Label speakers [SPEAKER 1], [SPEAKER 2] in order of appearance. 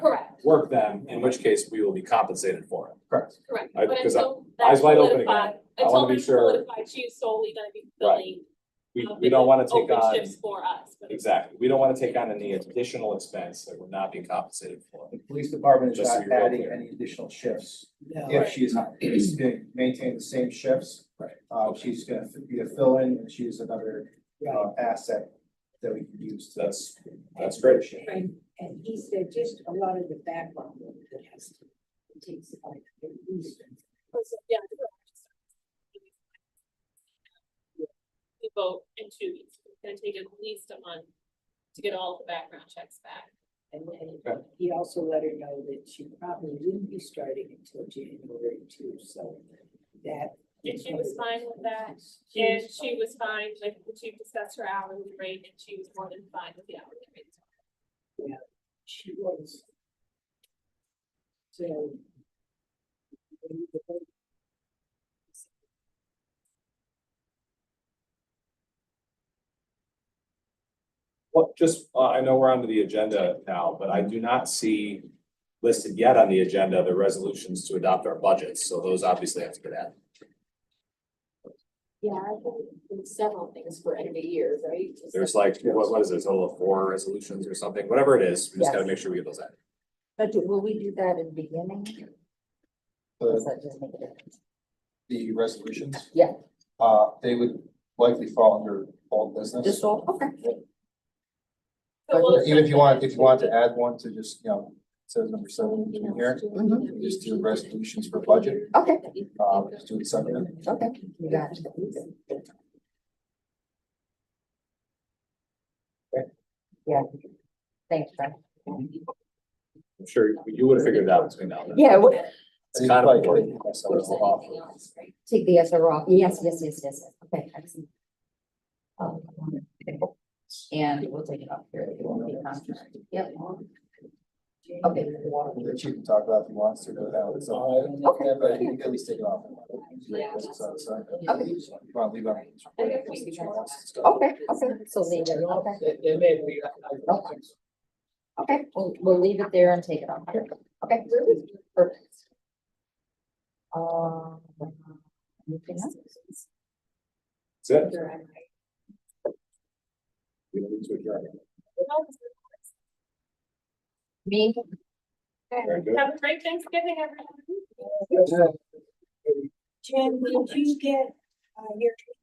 [SPEAKER 1] work them, in which case we will be compensated for it.
[SPEAKER 2] Correct.
[SPEAKER 3] Correct,
[SPEAKER 1] I-
[SPEAKER 3] but
[SPEAKER 1] because I-
[SPEAKER 3] until
[SPEAKER 1] eyes
[SPEAKER 3] that's
[SPEAKER 1] wide open again.
[SPEAKER 3] solidified,
[SPEAKER 1] I wanna
[SPEAKER 3] until
[SPEAKER 1] be
[SPEAKER 3] that's
[SPEAKER 1] sure-
[SPEAKER 3] solidified, she's solely gonna be
[SPEAKER 1] Right.
[SPEAKER 3] filling
[SPEAKER 1] We,
[SPEAKER 3] uh,
[SPEAKER 1] we don't wanna take
[SPEAKER 3] open
[SPEAKER 1] on,
[SPEAKER 3] shifts for us. but-
[SPEAKER 1] exactly, we don't wanna take on any additional expense that we're not being compensated for.
[SPEAKER 2] The police department is
[SPEAKER 1] Just so
[SPEAKER 2] not
[SPEAKER 1] you're all
[SPEAKER 2] adding
[SPEAKER 1] clear.
[SPEAKER 2] any additional shifts.
[SPEAKER 4] No,
[SPEAKER 2] If she is not, she's gonna maintain the same shifts.
[SPEAKER 1] Right.
[SPEAKER 2] Uh, she's gonna be a fill-in and she's another
[SPEAKER 4] right,
[SPEAKER 2] uh, asset that we can use. to-
[SPEAKER 1] That's, that's great.
[SPEAKER 4] and, and he said just a lot of the background work that has to it takes like at least.
[SPEAKER 3] Yeah. We vote in two weeks, it's gonna take at least a month to get all the background checks back.
[SPEAKER 4] And then
[SPEAKER 1] Okay.
[SPEAKER 4] he also let her know that she probably wouldn't be starting until January too, so that.
[SPEAKER 3] And she was fine with that,
[SPEAKER 4] She
[SPEAKER 3] and
[SPEAKER 4] was
[SPEAKER 3] she was fine, like, the chief discussed her hourly rate, and she was more than fine with the hourly rate.
[SPEAKER 4] She was. So.
[SPEAKER 1] Well, just, uh, I know we're onto the agenda now, but I do not see listed yet on the agenda the resolutions to adopt our budgets, so those obviously have to get added.
[SPEAKER 5] Yeah, I think it's several things for end of the year, right? Just
[SPEAKER 1] There's like, what, what is it, a total of four resolutions or something, whatever it is, we just gotta
[SPEAKER 5] Yes.
[SPEAKER 1] make sure we get those added.
[SPEAKER 5] But do- will we do that in the beginning? Or does
[SPEAKER 2] The,
[SPEAKER 5] that just make it-
[SPEAKER 2] the resolutions.
[SPEAKER 5] Yeah.
[SPEAKER 2] Uh, they would likely fall under old business.
[SPEAKER 5] Just all, okay.
[SPEAKER 3] So we'll-
[SPEAKER 2] Even if you want, if you want to add one to just, you know, says number seven in here, Mm-hmm.
[SPEAKER 5] Mhm.
[SPEAKER 2] just do resolutions for budget,
[SPEAKER 5] Okay,
[SPEAKER 2] uh, just do it separately.
[SPEAKER 5] okay. You got it. Yeah. Thanks, Fran.
[SPEAKER 1] I'm sure you would have figured it out between now and then.
[SPEAKER 5] Yeah, we-
[SPEAKER 1] It's kind of
[SPEAKER 2] Like,
[SPEAKER 1] important.
[SPEAKER 2] myself off.
[SPEAKER 5] take the SRO off. Yes, yes, yes, yes. Okay, excellent. Um, And we'll take it off here. It won't be a contract. Yep. Okay.
[SPEAKER 2] The chief can talk about if he wants to, but that was all.
[SPEAKER 5] Okay.
[SPEAKER 2] But you can at least take it off.
[SPEAKER 5] Yeah.
[SPEAKER 2] So, so,
[SPEAKER 5] Okay.
[SPEAKER 2] well, leave it.
[SPEAKER 3] I think we chose-
[SPEAKER 2] Oh.
[SPEAKER 5] Okay, okay, so leave it, okay. Okay. Okay, we'll, we'll leave it there and take it off. Okay. Perfect. Um. anything else?
[SPEAKER 1] That's it. We don't need to adjourn.
[SPEAKER 5] Me?
[SPEAKER 1] Very good.
[SPEAKER 3] Have a great Thanksgiving, everyone.
[SPEAKER 4] Jen, did you get, uh, your